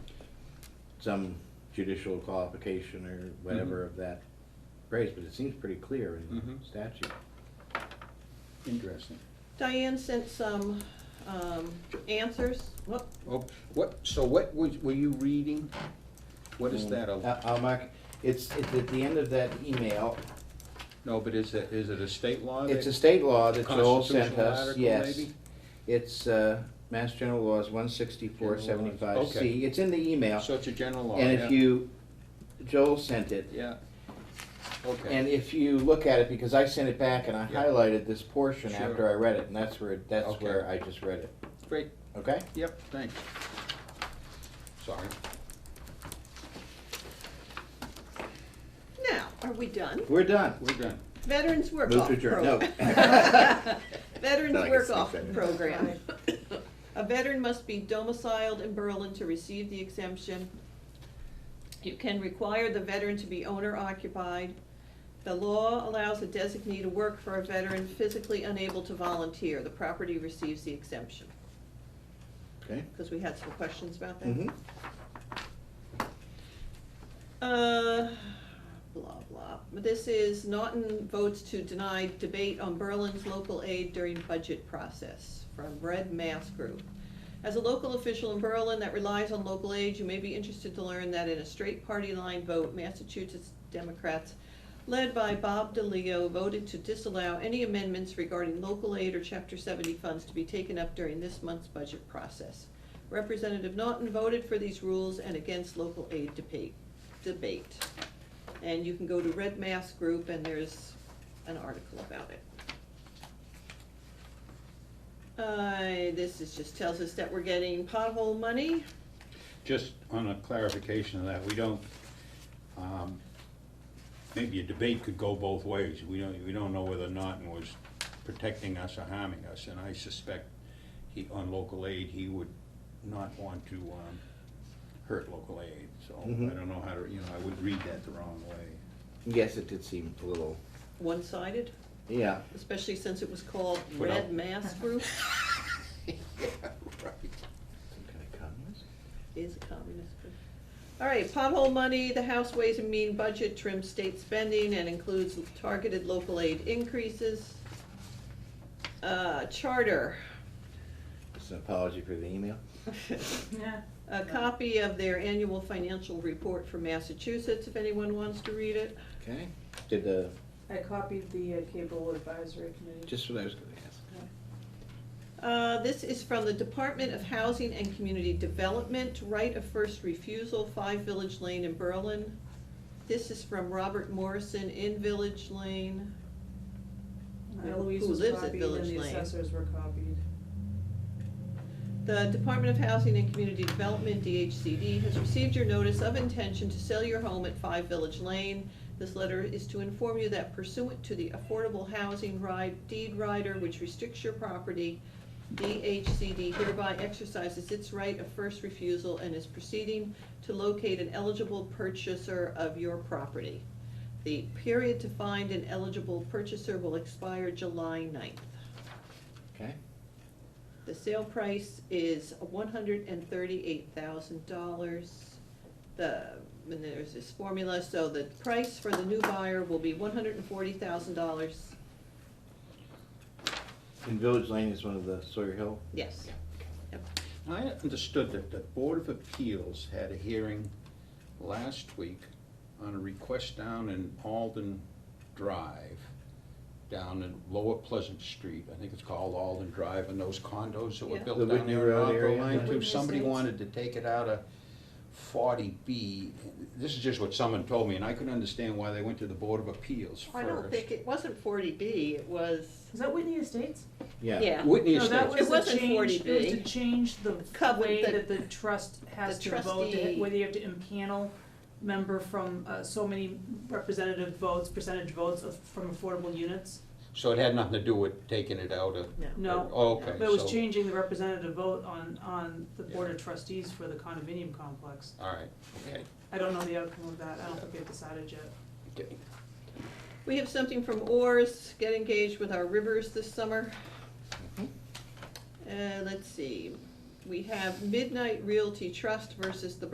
some judicial qualification or Mm-hmm. whatever of that phrase, but it seems pretty clear in the Mhm. statute. Interesting. Diane sent some um, answers. Whoop. Oh, what, so what was, were you reading? What is Um, that? a- I- I'll mark, it's, it's at the end of that email, No, but is it, is it a state law? it's a that- state law that Joel sent Constitutional us, article, yes. maybe? It's, uh, Mass General Laws one sixty-four seventy-five C, Okay. it's in the email, So it's a general law, yeah. and if you, Joel sent it. Yeah. Okay. And if you look at it, because I sent it back and I Yeah. highlighted this portion Sure. after I read it, and that's where, that's Okay. where I just read it, Great, okay? yep, thanks. Sorry. Now, are we done? We're done. We're done. Veterans Work Move Off to adjourn, no. Program. Veterans Thought I could Work sneak Off that in. Program. A veteran must be domiciled in Berlin to receive the exemption. You can require the veteran to be owner occupied. The law allows a designee to work for a veteran physically unable to volunteer. The property receives the exemption, Okay. because we had some questions about that. Mm-hmm. Uh, blah, blah. This is Naughton votes to deny debate on Berlin's local aid during budget process from Red Mass Group. As a local official in Berlin that relies on local aid, you may be interested to learn that in a straight party line vote, Massachusetts Democrats led by Bob DeLeo voted to disallow any amendments regarding local aid or chapter seventy funds to be taken up during this month's budget process. Representative Naughton voted for these rules and against local aid debate debate. And you can go to Red Mass Group and there's an article about it. Uh, this is, just tells us that we're getting pothole money. Just on a clarification of that, we don't, um, maybe a debate could go both ways. We don't, we don't know whether Norton was protecting us or harming us, and I suspect he, on local aid, he would not want to, um, hurt local aid, so I Mhm. don't know how to, you know, I would read that the wrong way. Yes, it did seem a little, One-sided, yeah. especially since it was called Put out. Red Mass Group Yeah, right. Some kind of communist? is a communist group. All right, pothole money, the House Ways and Mean budget trims state spending and includes targeted local aid increases. Uh, charter, It's an apology for the email. Yeah. a copy of their annual financial report for Massachusetts, if anyone wants to read it. Okay. Did the, I copied the uh, cable advisory committee. just what I was gonna ask. Uh, This is from the Department of Housing and Community Development, right of first refusal, Five Village Lane in Berlin. This is from Robert Morrison in Village Lane. Uh, Who Louise was lives at copied and Village the Lane? assessors were copied. The Department of Housing and Community Development, DHCD, has received your notice of intention to sell your home at Five Village Lane. This letter is to inform you that pursuant to the Affordable Housing Ride Deed Rider, which restricts your property, DHCD hereby exercises its right of first refusal and is proceeding to locate an eligible purchaser of your property. The period to find an eligible purchaser will expire July 9th. Okay. The sale price is one hundred and thirty-eight thousand dollars. The, and there's this formula, so the price for the new buyer will be one hundred and forty thousand dollars, And Village Lane is one of the Sawyer Hill? yes. Yep. I understood that the Board of Appeals had a hearing last week on a request down in Alden Drive, down in Lower Pleasant Street, I think it's called Alden Drive, and those condos that were Yeah. built The down Whitney there Road on Rockville area. Line too. Whitney Somebody Estates. wanted to take it out of forty B. This is just what someone told me, and I couldn't understand why they went to the Board of Appeals first. I don't think, it wasn't forty B, it was, Is that Whitney Estates? Yeah. yeah. Whitney No, that Estates. was It the wasn't change- It 40B. was to change the Covered way the- that the trust has the to vote, to- trustee- whether you have to impanel member from uh, so many representative votes, percentage votes of, from affordable units. So it had nothing to do with taking it out of. No. Oh, Okay, But it was so- changing the representative vote on, on the board of trustees for the condominium complex. All right, okay. I don't know the outcome of that, I don't think they've decided yet. Okay. We have something from Oars, get engaged with our rivers this summer. Mhm. Uh, let's see, we have Midnight Realty Trust versus the